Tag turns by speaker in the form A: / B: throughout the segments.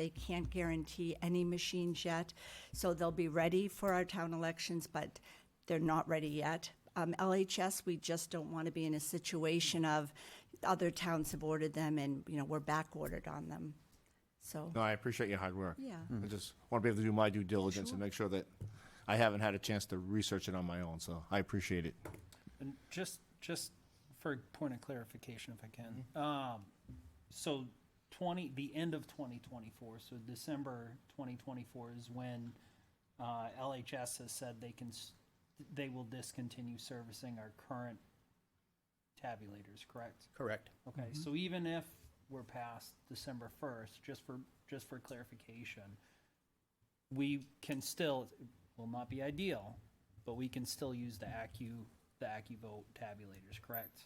A: They can't guarantee any machines yet. So they'll be ready for our town elections, but they're not ready yet. Um, LHS, we just don't want to be in a situation of other towns have ordered them and, you know, we're back ordered on them. So,
B: No, I appreciate your hard work.
A: Yeah.
C: Mm.
B: I just want to be able to do my due diligence and make sure that I haven't had a chance to research it on my own, so I appreciate it.
D: And just, just for a point of clarification, if I can, um, so twenty, the end of twenty twenty-four, so December twenty twenty-four is when, uh, LHS has said they can, s- they will discontinue servicing our current tabulators, correct?
E: Correct.
D: Okay, so even if we're past December first, just for, just for clarification, we can still, it will not be ideal, but we can still use the Accu, the AccuVote tabulators, correct?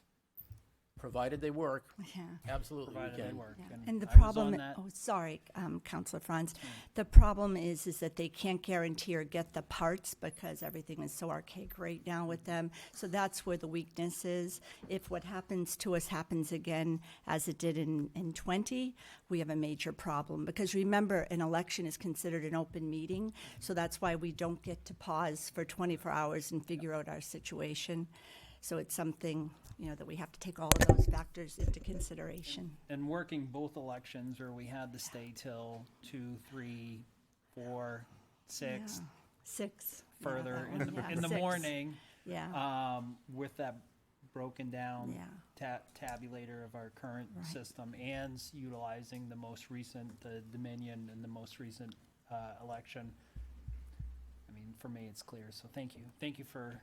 E: Provided they work,
A: yeah.
E: absolutely we
D: Provided they
E: can.
D: work.
A: Yeah, And the
D: I was
A: problem,
D: on that- Mm.
A: oh, sorry, um, Counselor Franz, the problem is, is that they can't guarantee or get the parts because everything is so archaic right now with them. So that's where the weakness is. If what happens to us happens again, as it did in, in twenty, we have a major problem. Because remember, an election is considered an open meeting, so that's why we don't get to pause for twenty-four hours and figure out our situation. So it's something, you know, that we have to take all of those factors into consideration.
D: And working both elections where we had to stay till two, three, four, six,
A: Yeah. Six. Yeah,
D: further
A: that one,
D: in the,
A: yeah,
D: in the
A: six.
D: morning.
A: Yeah,
D: um, with that broken
A: Yeah.
D: down ta- tabulator of our current
A: Right.
D: system and s- utilizing the most recent, the Dominion and the most recent uh, election. I mean, for me, it's clear, so thank you. Thank you for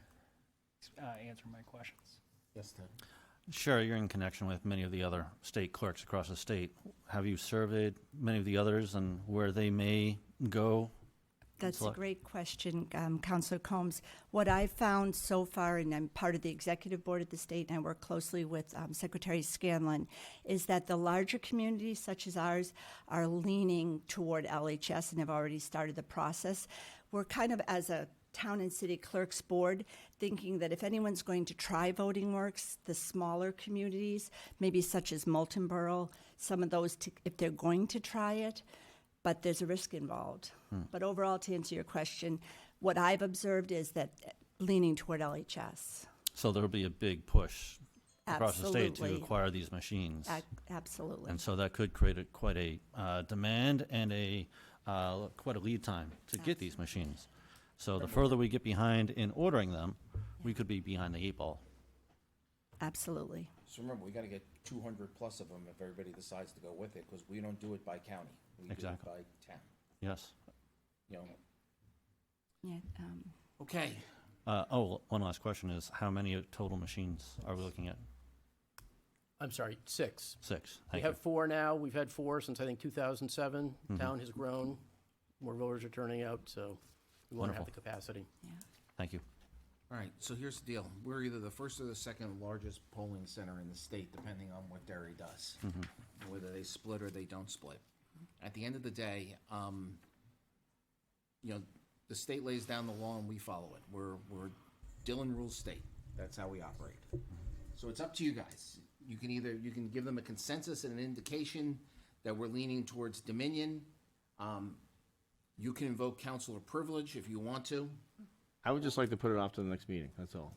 D: uh, answering my questions.
E: Yes, Ted.
F: Sure, you're in connection with many of the other state clerks across the state. Have you surveyed many of the others and where they may go?
A: that's a
F: Select-
A: great question, um, Counselor Combs. What I found so far, and I'm part of the executive board at the state, and I work closely with um, Secretary Scanlon, is that the larger communities such as ours are leaning toward LHS and have already started the process. We're kind of as a town and city clerks board thinking that if anyone's going to try voting works the smaller communities maybe such as Moulton Borough some of those to, if they're going to try it but there's a risk involved
B: Hmm.
A: but overall to answer your question what I've observed is that leaning toward LHS
F: So there'll be a big push across the state to
A: Absolutely.
F: acquire these machines.
A: A- absolutely
F: And so that could create a- quite a uh, demand and a, uh, quite a lead time to get these machines. So the further we get behind in ordering them, we could be behind the eight ball.
A: absolutely
C: So remember, we gotta get two hundred plus of them if everybody decides to go with it, because we don't do it by county. We do it
F: Exactly.
C: by town,
F: Yes.
C: you know.
A: yeah um,
E: Okay,
F: Uh, Oh, one last question is, how many total machines are we looking at?
E: I'm sorry, six.
F: Six.
E: We
F: Thank you. Mm-hmm.
E: have four now. We've had four since, I think, 2007. Town has grown. More voters are turning out, so we want to have
F: Wonderful.
E: the capacity.
A: yeah
F: Thank you.
C: All right, so here's the deal. We're either the first or the second largest polling center in the state, depending on what Derry does,
B: Mm-hmm.
C: whether they split or they don't split. At the end of the day, um, you know, the state lays down the law and we follow it. We're, we're Dillon rules state. That's how we operate. So it's up to you guys. You can either, you can give them a consensus and an indication that we're leaning towards Dominion. Um, you can invoke counselor privilege if you want to.
B: I would just like to put it off to the next meeting, that's all.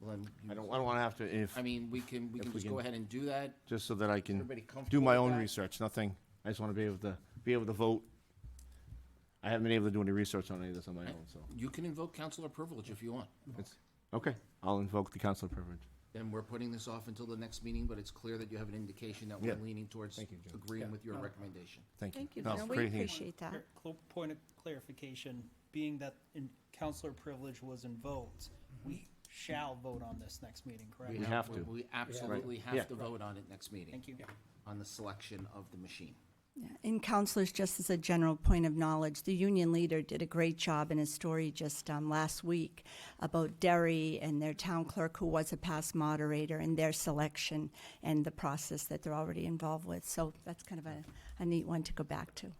C: Well, then you-
B: I don't, I don't want to have to, if,
C: I mean, we can, we can
B: we
C: just go
B: can-
C: ahead and do that.
B: just so that I can
C: Everybody
B: do
C: comfortable
B: my
C: with
B: own
C: that?
B: research, nothing. I just want to be able to, be able to vote. I haven't been able to do any research on any of this on my own, so.
C: You can invoke counselor privilege if you want.
B: it's- Okay, I'll invoke the council privilege.
C: Then we're putting this off until the next meeting, but it's clear that you have an indication that we're
B: Yeah.
C: leaning towards
B: Thank you, Jim.
C: agreeing with your recommendation.
B: Thank you.
A: Thank you.
B: No,
A: No, we
B: great hearing.
A: appreciate that.
D: Cl- Point of clarification, being that in- counselor privilege was invoked, we shall vote on this next meeting, correct?
B: Mm-hmm. We have to.
C: We absolutely
B: Right. Yeah.
C: have to vote on it next meeting.
D: Thank you.
C: On the selection of the machine.
A: Yeah, And counselors, just as a general point of knowledge, the union leader did a great job in a story just um, last week about Derry and their town clerk, who was a past moderator, and their selection and the process that they're already involved with. So that's kind of a, a neat one to go back to.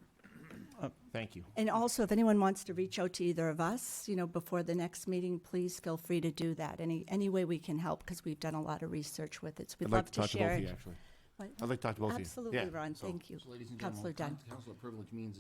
B: Thank you.
A: And also, if anyone wants to reach out to either of us, you know, before the next meeting, please feel free to do that. Any any way we can help, because we've done a lot of research with it. So we'd
B: I'd
A: love
B: like to talk to both
A: share
B: of you,
A: it.
B: actually.
A: What?
B: I'd like to talk to both of you.
A: Absolutely,
B: Yeah,
A: Ron.
B: so-
A: Thank you,
C: So ladies and
A: Councilor
C: gentlemen,
A: Dunn.
C: coun- counselor privilege means